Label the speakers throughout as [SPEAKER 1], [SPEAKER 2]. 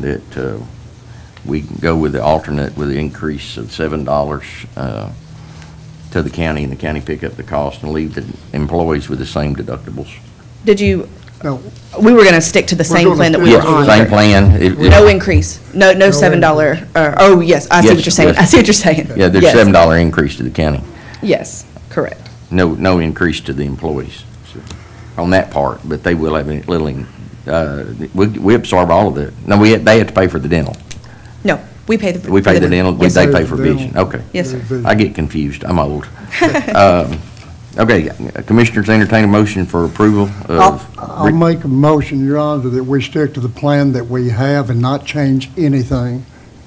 [SPEAKER 1] that uh, we can go with the alternate with the increase of seven dollars uh, to the county, and the county pick up the cost and leave the employees with the same deductibles.
[SPEAKER 2] Did you,
[SPEAKER 3] No,
[SPEAKER 2] we were going to stick to the same
[SPEAKER 3] doing
[SPEAKER 2] plan
[SPEAKER 3] the
[SPEAKER 2] that we were
[SPEAKER 3] fifty.
[SPEAKER 2] on.
[SPEAKER 1] Same plan. It- it-
[SPEAKER 2] No increase, no, no
[SPEAKER 3] No
[SPEAKER 2] seven dollar, oh, yes, I see what
[SPEAKER 1] Yes,
[SPEAKER 2] you're saying,
[SPEAKER 1] yes.
[SPEAKER 2] I see what you're saying.
[SPEAKER 1] Yeah, there's
[SPEAKER 2] Yes,
[SPEAKER 1] seven dollar increase to the county.
[SPEAKER 2] Yes, correct.
[SPEAKER 1] No, no increase to the employees on that part, but they will have a little, uh, we we absorb all of it. No, we, they have to pay for the dental.
[SPEAKER 2] No, we pay the.
[SPEAKER 1] We pay the dental,
[SPEAKER 2] Yes,
[SPEAKER 1] they
[SPEAKER 2] sir.
[SPEAKER 1] pay for vision, okay.
[SPEAKER 2] Yes, sir.
[SPEAKER 1] I get confused, I'm old. Um, Okay, Commissioners, entertain a motion for approval
[SPEAKER 3] I'll
[SPEAKER 1] of,
[SPEAKER 3] I'll make a motion, Your Honor, that we stick to the plan that we have and not change anything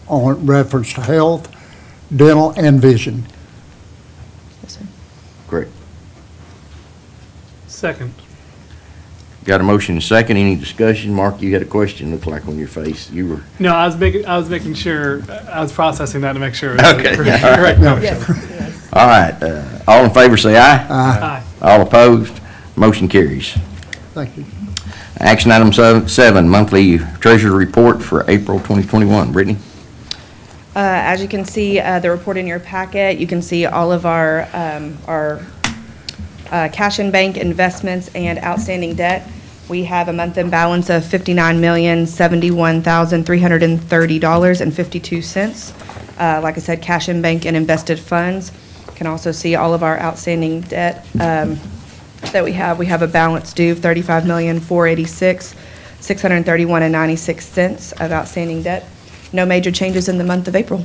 [SPEAKER 3] on reference to health, dental, and vision.
[SPEAKER 2] Yes, sir.
[SPEAKER 1] correct.
[SPEAKER 4] Second.
[SPEAKER 1] Got a motion and second, any discussion? Mark, you had a question, looked like on your face, you were,
[SPEAKER 4] No, I was making, I was making sure, I was processing that to make sure.
[SPEAKER 1] Okay, yeah, all right.
[SPEAKER 4] Correct.
[SPEAKER 1] all right, uh, all in favor say aye.
[SPEAKER 4] Aye.
[SPEAKER 1] All opposed, motion carries.
[SPEAKER 3] Thank you.
[SPEAKER 1] Action item seven- seven, monthly treasury report for April 2021. Brittany?
[SPEAKER 2] Uh, As you can see, uh, the report in your packet, you can see all of our, um, our uh, cash and bank investments and outstanding debt. We have a month-end balance of $59,071,330.52. Uh, Like I said, cash in bank and invested funds. Can also see all of our outstanding debt um, that we have. We have a balance due of $35,486,631.96 of outstanding debt. No major changes in the month of April.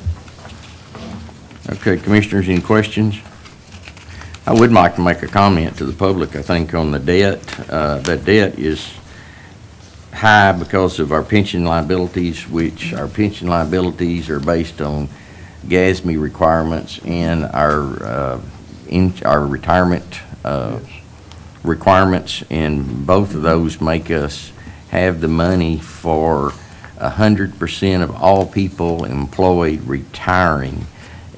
[SPEAKER 1] Okay, Commissioners, any questions? I would like to make a comment to the public, I think, on the debt. Uh, That debt is high because of our pension liabilities, which our pension liabilities are based on GASB requirements and our, uh, in, our retirement uh, requirements, and both of those make us have the money for 100% of all people employed retiring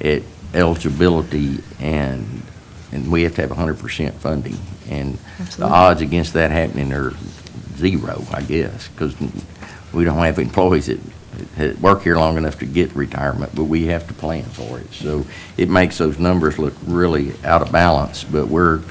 [SPEAKER 1] at eligibility, and, and we have to have 100% funding. And the
[SPEAKER 2] Absolutely.
[SPEAKER 1] odds against that happening are zero, I guess, because we don't have employees that, that work here long enough to get retirement, but we have to plan for it. So it makes those numbers look really out of balance, but we're,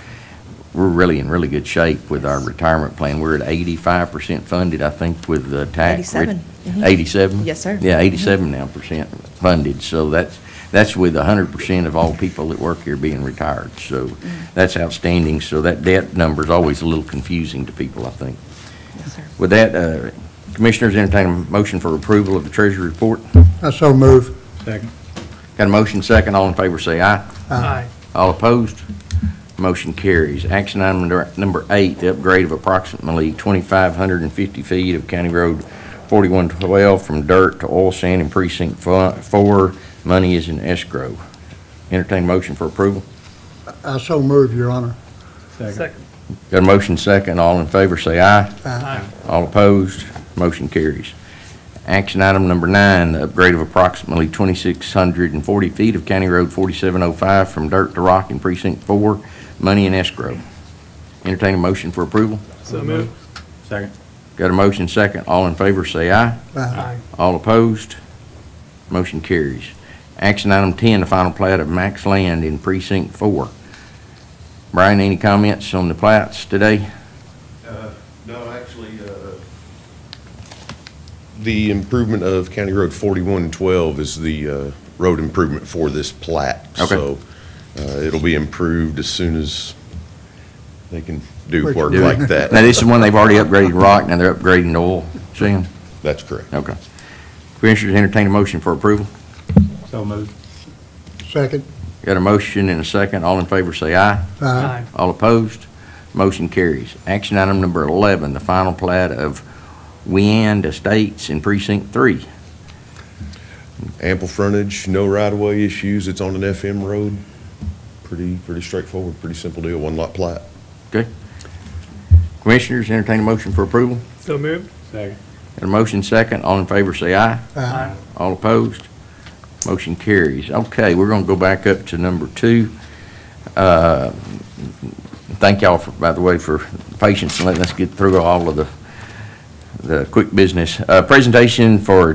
[SPEAKER 1] we're really in really good shape with our retirement plan. We're at eighty-five percent funded, I think, with the tax.
[SPEAKER 2] 87. Mhm.
[SPEAKER 1] Eighty-seven?
[SPEAKER 2] Yes, sir. Mm-hmm.
[SPEAKER 1] Yeah, eighty-seven now percent funded, so that's, that's with hundred percent of all people that work here being retired. So
[SPEAKER 2] Mm.
[SPEAKER 1] that's outstanding, so that debt number's always a little confusing to people, I think.
[SPEAKER 2] Yes, sir.
[SPEAKER 1] With that, uh, Commissioners, entertain a motion for approval of the Treasury report.
[SPEAKER 3] I so move.
[SPEAKER 1] Got a motion second, all in favor say aye.
[SPEAKER 4] Aye.
[SPEAKER 1] All opposed? Motion carries. Action item number- number eight, the upgrade of approximately 2,550 feet of County Road 4112 from dirt to oil sand in precinct fo- four. Money is in escrow. Entertain motion for approval.
[SPEAKER 3] I so move, Your Honor.
[SPEAKER 4] Second.
[SPEAKER 1] Got a motion second, all in favor say aye.
[SPEAKER 4] Aye.
[SPEAKER 1] All opposed, motion carries. Action item number nine, the upgrade of approximately 2,640 feet of County Road 4705 from dirt to rock in precinct four, money in escrow. Entertain a motion for approval.
[SPEAKER 4] So move.
[SPEAKER 5] Second.
[SPEAKER 1] Got a motion second, all in favor say aye.
[SPEAKER 3] Aye.
[SPEAKER 4] Aye.
[SPEAKER 1] All opposed, motion carries. Action item 10, the final plat of Max Land in precinct four. Brian, any comments on the plats today?
[SPEAKER 6] Uh, No, actually, uh, the improvement of County Road 4112 is the uh, road improvement for this plat.
[SPEAKER 1] Okay.
[SPEAKER 6] So uh, it'll be improved as soon as they can do work
[SPEAKER 3] Do it.
[SPEAKER 6] like
[SPEAKER 1] Now,
[SPEAKER 6] that.
[SPEAKER 1] this is one they've already upgraded rock, now they're upgrading to oil sand.
[SPEAKER 6] That's correct.
[SPEAKER 1] Okay. Commissioners, entertain a motion for approval.
[SPEAKER 5] So moved.
[SPEAKER 3] Second.
[SPEAKER 1] Got a motion and a second. All in favor say aye.
[SPEAKER 3] Aye.
[SPEAKER 4] Aye.
[SPEAKER 1] All opposed? Motion carries. Action item number 11, the final plat of Wind Estates in Precinct 3.
[SPEAKER 6] Ample frontage, no right-of-way issues. It's on an FM road. Pretty, pretty straightforward, pretty simple deal, one lot plat.
[SPEAKER 1] Commissioners, entertain a motion for approval.
[SPEAKER 4] So move.
[SPEAKER 5] Second.
[SPEAKER 1] Got a motion second. All in favor say aye.
[SPEAKER 4] Aye.
[SPEAKER 1] All opposed? Motion carries. Okay, we're going to go back up to number two. Uh, Thank y'all, for by the way, for patience and letting us get through all of the the quick business. Uh, Presentation for